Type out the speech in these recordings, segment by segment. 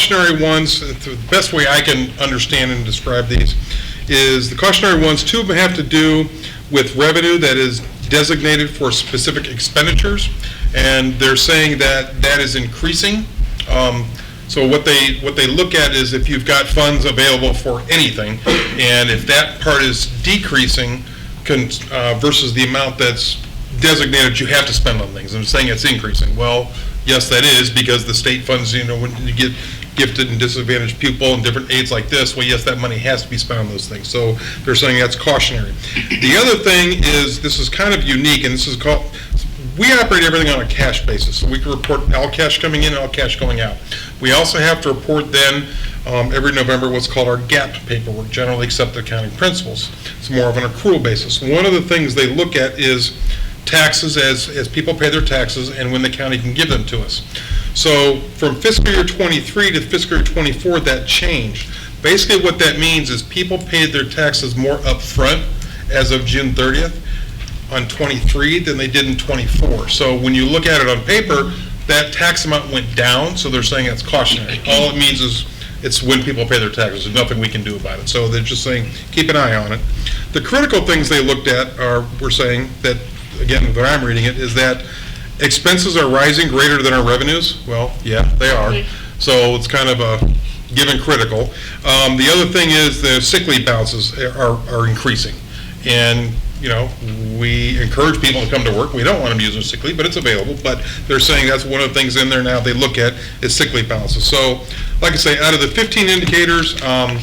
cautionary ones, uh, the best way I can understand and describe these, is the cautionary ones, two of them have to do with revenue that is designated for specific expenditures, and they're saying that that is increasing. Um, So what they, what they look at is if you've got funds available for anything, and if that part is decreasing con- uh, versus the amount that's designated you have to spend on things. I'm saying it's increasing. Well, yes, that is, because the state funds, you know, when you get gifted and disadvantaged pupil and different aids like this, well, yes, that money has to be spent on those things. So they're saying that's cautionary. The other thing is, this is kind of unique, and this is called, we operate everything on a cash basis. So we can report all cash coming in, all cash going out. We also have to report then, um, every November, what's called our GAAP paperwork, generally accepted accounting principles. It's more of an accrual basis. One of the things they look at is taxes as, as people pay their taxes and when the county can give them to us. So from fiscal year '23 to fiscal year '24, that changed. Basically, what that means is people paid their taxes more upfront as of June 30th on '23 than they did in '24. So when you look at it on paper, that tax amount went down, so they're saying it's cautionary. All it means is it's when people pay their taxes, there's nothing we can do about it. So they're just saying, keep an eye on it. The critical things they looked at are, we're saying that, again, that I'm reading it, is that expenses are rising greater than our revenues. Well, yeah, they are. So it's kind of a given critical. Um, the other thing is the sick leave balances are, are increasing. And, you know, we encourage people to come to work. We don't want them using sick leave, but it's available. But they're saying that's one of the things in there now they look at is sick leave balances. So, like I say, out of the 15 indicators, um,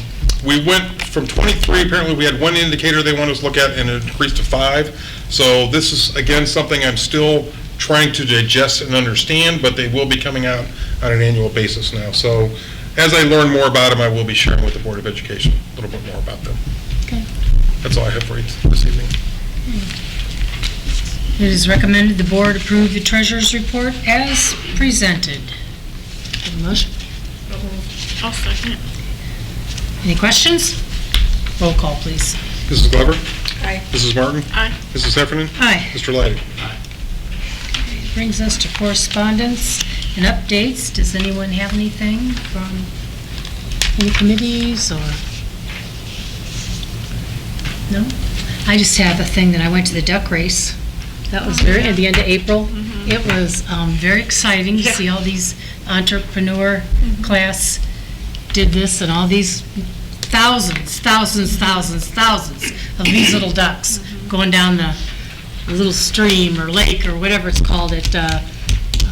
we went from 23, apparently we had one indicator they wanted us to look at and it increased to five. So this is, again, something I'm still trying to digest and understand, but they will be coming out on an annual basis now. So as I learn more about them, I will be sharing with the Board of Education a little bit more about them. That's all I have for you this evening. It is recommended the board approve the treasurer's report as presented. Have a Motion? I'll second. Any questions? Roll call, please. Mrs. Glover? Aye. Mrs. Martin? Aye. Mrs. Heffernan? Aye. Mr. Leidy? Brings us to correspondence and updates. Does anyone have anything from any committees or? No? I just have a thing that I went to the duck race. That was very, at the end of April. It was um, very exciting to Yeah. see all these entrepreneur class did this and all these thousands, thousands, thousands, thousands of these little ducks going down the little stream or lake or whatever it's called at uh,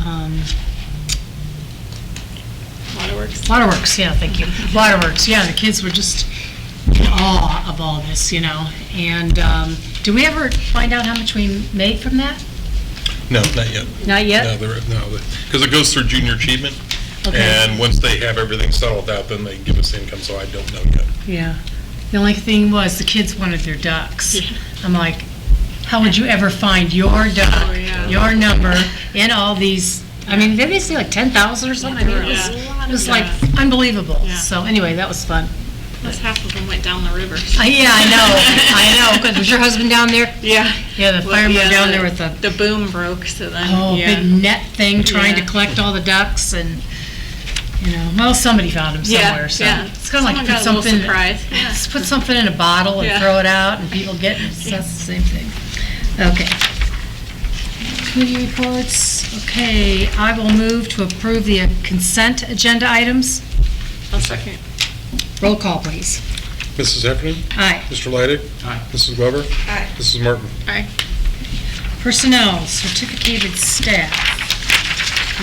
um, Waterworks. Waterworks, yeah, thank you. Waterworks, yeah, the kids were just in awe of all this, you know. And um, do we ever find out how much we made from that? No, not yet. Not No, yet? they're, no, because it goes through junior achievement. Okay. And once they have everything settled out, then they give us income, so I don't know yet. Yeah. The only thing was, the kids wanted their ducks. I'm like, how would you ever find your Oh, duck, yeah. your number, in all these, I mean, did they say like 10,000 or something? I mean, It was- Yeah. it was like unbelievable. Yeah. So anyway, that was fun. Plus half of them went down the river. Uh, Yeah, I know, I know, because was your husband down there? Yeah. Yeah, the Well, fireman yeah, down the- there with the, The boom broke, so then, oh, big yeah. net thing trying to Yeah. collect all the ducks and, you know, well, somebody found him Yeah, somewhere, so. yeah. It's kind of like Someone put got a little something. surprise, yeah. Just put something in a bottle and Yeah. throw it out and people get it, so that's the same thing. Okay. Committee reports, okay, I will move to approve the consent agenda items. I'll second. Roll call, please. Mrs. Heffernan? Aye. Mr. Leidy? Aye. Mrs. Glover? Aye. Mrs. Martin? Aye. Personnel, certificated staff.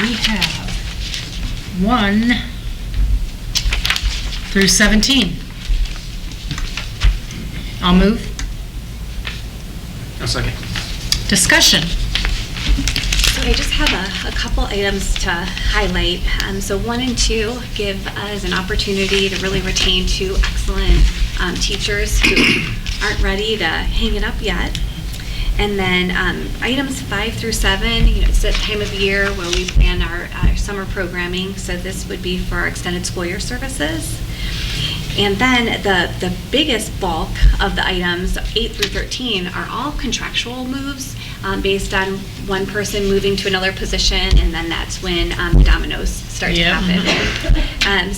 We have one through 17. I'll move. A second. Discussion. So I just have a, a couple items to highlight. Um, so one and two give us an opportunity to really retain two excellent um, teachers who aren't ready to hang it up yet. And then um, items five through seven, you know, it's that time of year where we plan our, uh summer programming. So this would be for our extended school year services. And then the, the biggest bulk of the items, 8 through 13, are all contractual moves um, based on one person moving to another position, and then that's when um, dominoes start to Yeah. happen. Um,